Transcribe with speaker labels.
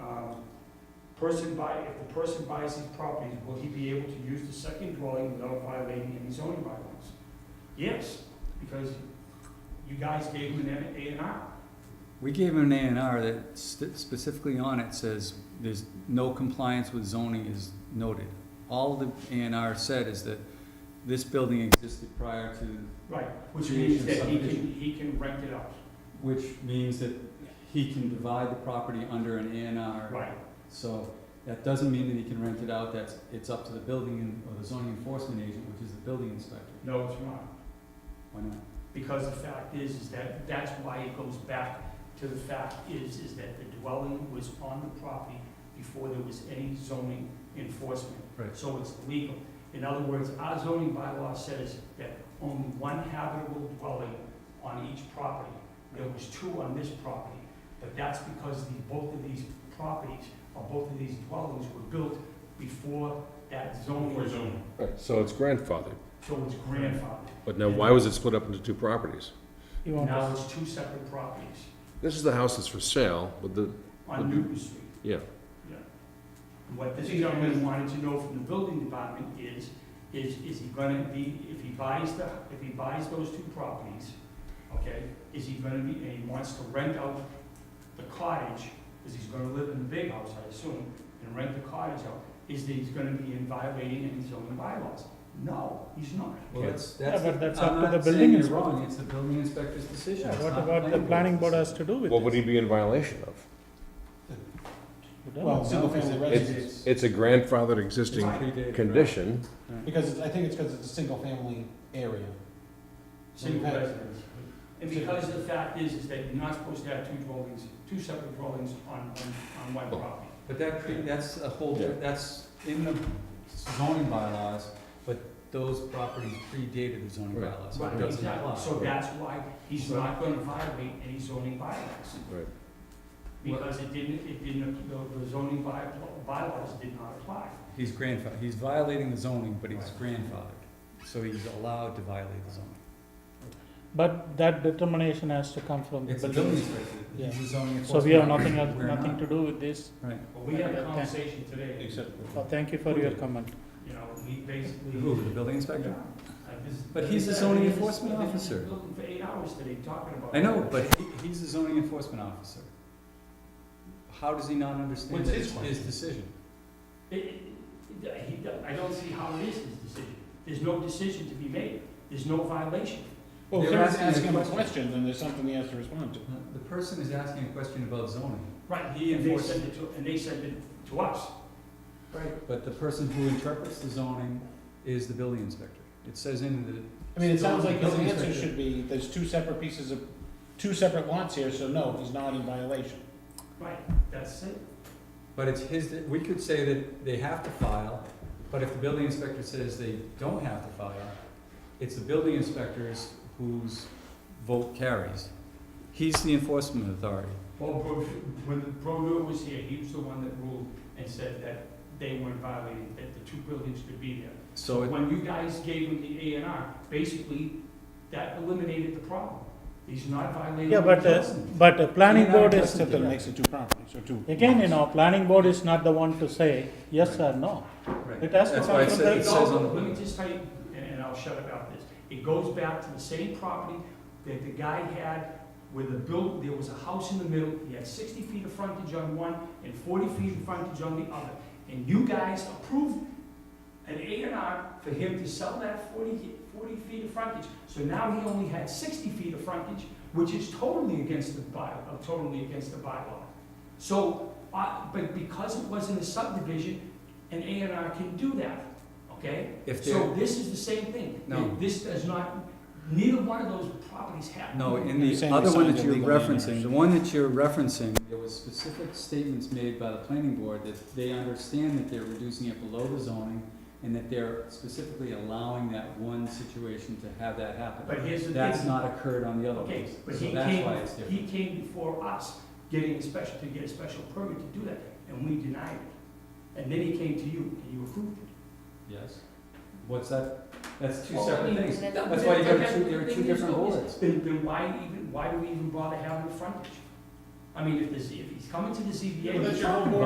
Speaker 1: um, Person buy, if the person buys these properties, will he be able to use the second dwelling without violating any zoning bylaws? Yes, because you guys gave him an A and R.
Speaker 2: We gave him an A and R that st- specifically on it says there's no compliance with zoning is noted. All the A and R said is that this building existed prior to,
Speaker 1: Right, which means
Speaker 2: Creation
Speaker 1: that he can,
Speaker 2: subdivision.
Speaker 1: he can rent it out.
Speaker 2: which means that he can divide the property under an A and R.
Speaker 1: Right,
Speaker 2: So that doesn't mean that he can rent it out, that's, it's up to the building and, or the zoning enforcement agent, which is the building inspector.
Speaker 1: no, it's not,
Speaker 2: Why not?
Speaker 1: because the fact is, is that, that's why it goes back to the fact is, is that the dwelling was on the property before there was any zoning enforcement.
Speaker 2: Right.
Speaker 1: So it's legal. In other words, our zoning bylaw says that only one habitable dwelling on each property. There was two on this property, but that's because the, both of these properties, or both of these dwellings were built before that zoning was zoned.
Speaker 3: Right, so it's grandfathered,
Speaker 1: So it's grandfathered.
Speaker 3: but now why was it split up into two properties?
Speaker 1: Now it's two separate properties
Speaker 3: This is the house that's for sale, but the,
Speaker 1: on Newton Street.
Speaker 3: yeah,
Speaker 1: And What this gentleman wanted to know from the building department is, is, is he gonna be, if he buys the, if he buys those two properties, okay, is he gonna be, and he wants to rent out the cottage, because he's gonna live in the big house, I assume, and rent the cottage out, is that he's gonna be in violating any zoning bylaws? No, he's not.
Speaker 2: Well, that's,
Speaker 4: Yeah,
Speaker 2: that's,
Speaker 4: but that's up
Speaker 2: I'm
Speaker 4: to the
Speaker 2: not
Speaker 4: building
Speaker 2: saying you're
Speaker 4: inspector.
Speaker 2: wrong, it's the building inspector's decision.
Speaker 4: Yeah,
Speaker 2: It's
Speaker 4: What
Speaker 2: not
Speaker 4: about the planning board
Speaker 2: board's.
Speaker 4: has to do with this?
Speaker 3: what would he be in violation of?
Speaker 4: We don't
Speaker 5: Well,
Speaker 4: know.
Speaker 5: single family
Speaker 3: It's,
Speaker 5: residence,
Speaker 3: it's a grandfathered existing
Speaker 2: Predated.
Speaker 3: condition,
Speaker 5: because it's- I think it's because it's a single family area.
Speaker 1: single
Speaker 5: Okay.
Speaker 1: residence. And because the fact is, is that you're not supposed to have two dwellings, two separate dwellings on, on, on one
Speaker 3: Well,
Speaker 1: property.
Speaker 2: But that, pre- that's a whole,
Speaker 3: Yeah.
Speaker 2: that's in the zoning bylaws, but those properties predated the zoning
Speaker 3: Right.
Speaker 2: bylaws, so it
Speaker 1: Right,
Speaker 2: doesn't
Speaker 1: exactly,
Speaker 2: apply.
Speaker 1: so that's why he's not gonna violate any zoning bylaws.
Speaker 3: Right.
Speaker 1: Because it didn't, it didn't, the the zoning by, bylaws did not apply.
Speaker 2: He's grandfathered, he's violating the zoning, but he's grandfathered, so he's allowed to violate the zoning.
Speaker 4: But that determination has to come from the
Speaker 2: It's a
Speaker 4: building.
Speaker 2: building
Speaker 4: inspector.
Speaker 2: inspector,
Speaker 4: Yeah.
Speaker 2: he's the zoning
Speaker 4: So
Speaker 2: enforcement.
Speaker 4: we have nothing, else-
Speaker 2: We're
Speaker 4: nothing
Speaker 2: not.
Speaker 4: to do with this.
Speaker 2: Right.
Speaker 1: But we had a
Speaker 4: Okay.
Speaker 1: conversation today,
Speaker 4: Oh, Thank you for your comment.
Speaker 1: you know, he basically.
Speaker 2: Who, the building inspector?
Speaker 1: I visited-
Speaker 2: But he's the zoning enforcement officer.
Speaker 1: Looking for eight hours today talking about.
Speaker 2: I know, but he, he's the zoning enforcement officer. How does he not understand
Speaker 1: What's
Speaker 2: that
Speaker 1: his
Speaker 2: it's
Speaker 1: point?
Speaker 2: his decision?
Speaker 1: It- it- he do- I don't see how it is his decision. There's no decision to be made. There's no violation.
Speaker 5: Well, if
Speaker 2: They're
Speaker 5: someone's
Speaker 2: asking a
Speaker 5: asking him a
Speaker 2: question.
Speaker 5: question, then there's something he has to respond to.
Speaker 2: The person is asking a question about zoning.
Speaker 1: Right,
Speaker 2: He
Speaker 1: and they
Speaker 2: enforced-
Speaker 1: sent it to, and they sent it to us.
Speaker 2: Right. But the person who interprets the zoning is the building inspector. It says in the,
Speaker 5: I mean, it sounds like his
Speaker 2: Building
Speaker 5: answer
Speaker 2: inspector.
Speaker 5: should be, there's two separate pieces of, two separate lots here, so no, he's not in violation.
Speaker 1: Right, that's it.
Speaker 2: but it's his, we could say that they have to file, but if the building inspector says they don't have to file, it's the building inspectors whose vote carries. He's the enforcement authority.
Speaker 1: Well, Bro- when the Broder was here, he was the one that ruled and said that they weren't violating, that the two buildings could be there.
Speaker 2: So it-
Speaker 1: When you guys gave him the A and R, basically, that eliminated the problem. He's not violating.
Speaker 4: Yeah, but,
Speaker 1: the
Speaker 4: uh,
Speaker 1: zoning.
Speaker 4: but the planning
Speaker 2: You're not
Speaker 4: board is,
Speaker 2: addressing
Speaker 5: Except that it
Speaker 2: Yeah.
Speaker 5: makes it two properties, or two.
Speaker 4: again, you
Speaker 5: lots.
Speaker 4: know, planning board is not the one to say yes or no.
Speaker 2: right.
Speaker 4: It has to
Speaker 2: That's
Speaker 4: come
Speaker 2: why it
Speaker 4: from
Speaker 2: sa-
Speaker 4: the-
Speaker 2: it says on
Speaker 1: Let me
Speaker 2: the.
Speaker 1: just tell you, and, and I'll shut about this. It goes back to the same property that the guy had where the built, there was a house in the middle. He had sixty feet of frontage on one and forty feet of frontage on the other. And you guys approved an A and R for him to sell that 40 40 feet of frontage. So now he only had sixty feet of frontage, which is totally against the by, uh, totally against the bylaw. So, uh, but because it wasn't a subdivision, an A and R can do that, okay?
Speaker 2: If they're-
Speaker 1: So this is the same thing.
Speaker 2: No.
Speaker 1: This does not, neither one of those properties have.
Speaker 2: No, in
Speaker 5: You're
Speaker 2: the
Speaker 5: saying
Speaker 2: other
Speaker 5: we
Speaker 2: one
Speaker 5: signed
Speaker 2: that
Speaker 5: a
Speaker 2: you're
Speaker 5: legal name
Speaker 2: referencing, the one that you're referencing, there was specific statements made by the planning board that they understand that they're reducing it below the zoning and that they're specifically allowing that one situation to have that happen.
Speaker 1: But here's the thing.
Speaker 2: That's not occurred on the other
Speaker 1: Okay,
Speaker 2: ones,
Speaker 1: but
Speaker 2: so
Speaker 1: he
Speaker 2: that's why it's
Speaker 1: came,
Speaker 2: different.
Speaker 1: he came before us, getting a special, to get a special permit to do that, and we denied it. And then he came to you, and you approved it.
Speaker 2: Yes? What's that? That's two
Speaker 1: Well, I
Speaker 2: separate
Speaker 1: mean,
Speaker 2: things.
Speaker 6: then-
Speaker 2: That's why you got
Speaker 1: then-
Speaker 2: two, there are
Speaker 6: then
Speaker 2: two different
Speaker 6: there's no-
Speaker 2: boards.
Speaker 1: Then, then why even, why do we even bother having a frontage? I mean, if this, if he's coming to the ZBA.
Speaker 5: Well, that's your
Speaker 1: we're
Speaker 5: own
Speaker 1: talking
Speaker 5: board